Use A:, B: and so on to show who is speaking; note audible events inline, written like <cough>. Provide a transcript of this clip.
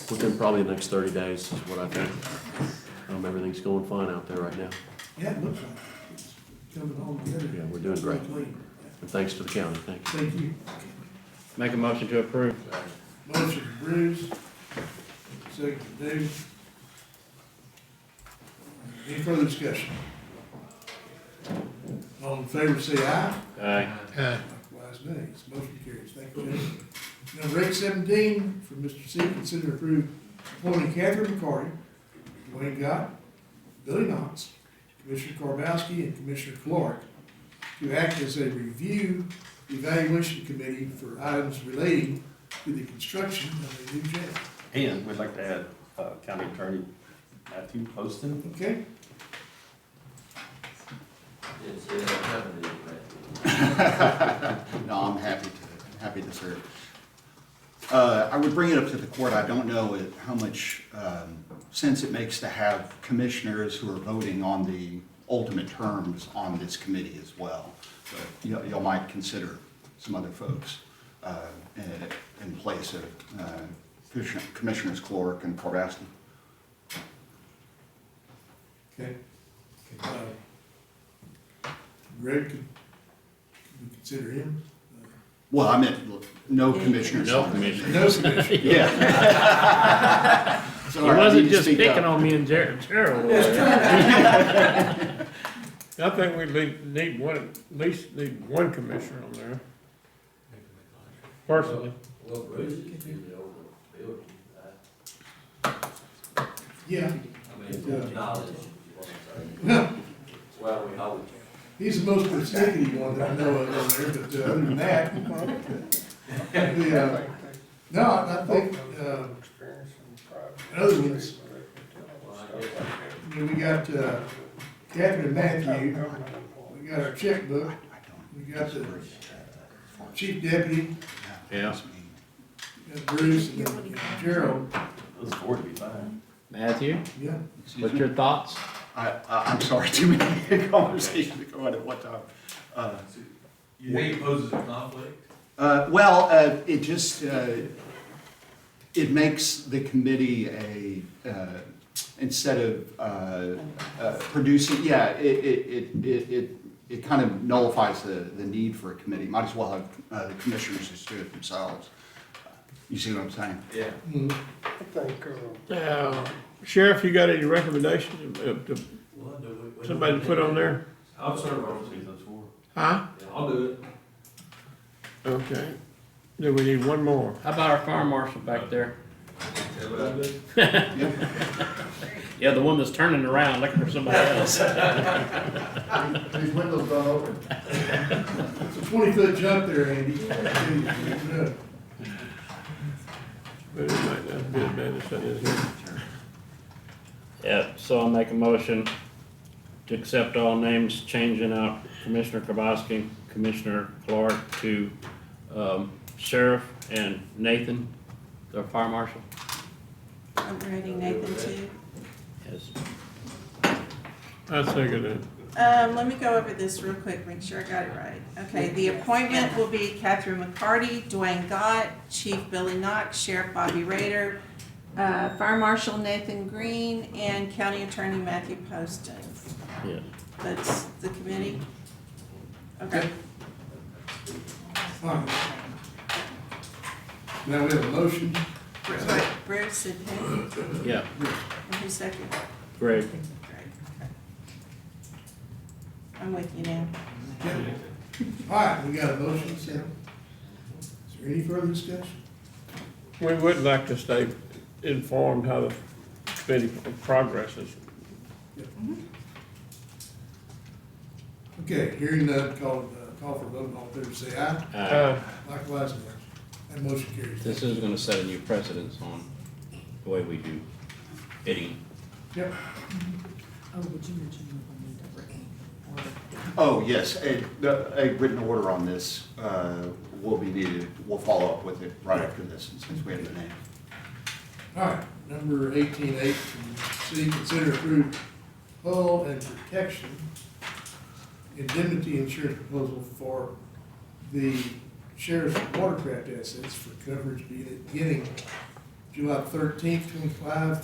A: within probably the next thirty days is what I think. Um, everything's going fine out there right now,
B: Yeah, it looks like it. It's coming along together.
A: Yeah, we're doing great.
B: Hopefully.
A: and thanks to the county, thank you.
B: Thank you.
C: Make a motion to approve.
B: Motion Bruce, second Dave. Any further discussion? All in favor, say aye.
C: Aye.
B: Likewise, nay. This motion carries. Thank you, gentlemen. Number eight seventeen, from Mr. C, consider and approve appointing Catherine McCarty, Dwayne Gott, Billy Knox, Commissioner Karbowski, and Commissioner Clark to act as a review evaluation committee for items relating to the construction of a new jail.
D: And we'd like to add uh, County Attorney Matthew
B: <laughs>
D: Poston.
B: Okay?
E: No, I'm happy to, happy to serve. Uh, I would bring it up to the court, I don't know it- how much um, sense it makes to have commissioners who are voting on the ultimate terms on this committee as well. But you, you might consider some other folks uh, in, in place of uh, Commissioner- Commissioners Clark and Kowalski.
B: Okay. Uh, Greg, can can we consider him?
E: Well, I meant no commissioners.
C: No commissioners.
B: No commission.
C: <laughs>
E: Yeah. <laughs>
C: He
E: Sorry, I need
C: wasn't
E: to
C: just
E: speak up.
C: picking on me and Ger- Gerald.
F: I think we need, need one, at least need one commissioner on there. Personally,
A: Well, Bruce is usually over the building,
B: Yeah.
A: I
B: mean,
A: knowledge. Well, we hope.
B: He's the most persnickety one that I know of on there, but uh, other than that. the, uh, No, I I think, uh, other ones, I mean, we got uh, Captain Matthew, we got our checkbook,
E: I don't
B: we got the
E: agree.
B: chief deputy,
C: Yeah.
B: we got Bruce and uh, Gerald,
D: Those four would be fine.
C: Matthew,
B: yeah.
E: Excuse
C: what's
E: me?
C: your thoughts?
E: I, I- I'm sorry, <laughs> too many conversations going on at one time. Uh,
D: You think it poses a conflict?
E: uh, Well, uh, it just, uh, it makes the committee a, uh, instead of uh, uh, producing, yeah, it, it, it- it, it, it kind of nullifies the, the need for a committee. Might as well have uh, the commissioners just do it themselves. You see what I'm saying?
D: Yeah.
B: Mm,
G: I think, uh,
F: uh, Sheriff, you got any recommendations of, of somebody to put on there?
D: I'll serve on those four.
F: Huh?
D: I'll do it.
F: Okay, then we need one more.
C: How about our fire marshal back there?
E: Yeah.
C: Yeah, the one that's turning around looking for somebody else.
E: These windows don't open.
B: It's a twenty-foot jump there, Andy. Yeah.
F: But it might not be as bad as that is here.
C: Yep, so I'll make a motion to accept all names, changing out Commissioner Kowalski, Commissioner Clark to, um, Sheriff and Nathan, the fire marshal.
H: I'm writing Nathan too.
C: Yes.
F: I second it.
H: Um, let me go over this real quick, make sure I got it right. Okay, the appointment will be Catherine McCarty, Dwayne Gott, Chief Billy Knox, Sheriff Bobby Raider, uh, Fire Marshal Nathan Green, and County Attorney Matthew Poston.
C: Yeah.
H: That's the committee? Okay,
B: Fine. Now we have a motion.
H: Bruce, wait, Bruce and who,
C: Yeah,
H: and who's second?
C: great.
H: Greg, okay. I'm with you now.
B: Yeah. All right, we got a motion, Sam. Is there any further discussion?
F: We would like to stay informed how the committee progresses.
B: Okay, hearing none, call, uh, call for vote, all in favor, say aye.
C: Uh,
F: Uh,
B: Likewise, nay. That motion carries.
C: This is gonna set a new precedence on the way we do bidding.
B: Yep.
I: Oh, would you mention you will need a written order?
E: Oh, yes, a, a written order on this uh, will be needed. We'll follow up with it right after this, and since we have the name.
B: All right, number eighteen eight, C, consider approved hull and protection indemnity insurance proposal for the sheriff's watercraft assets for coverage beginning July thirteenth, twenty-five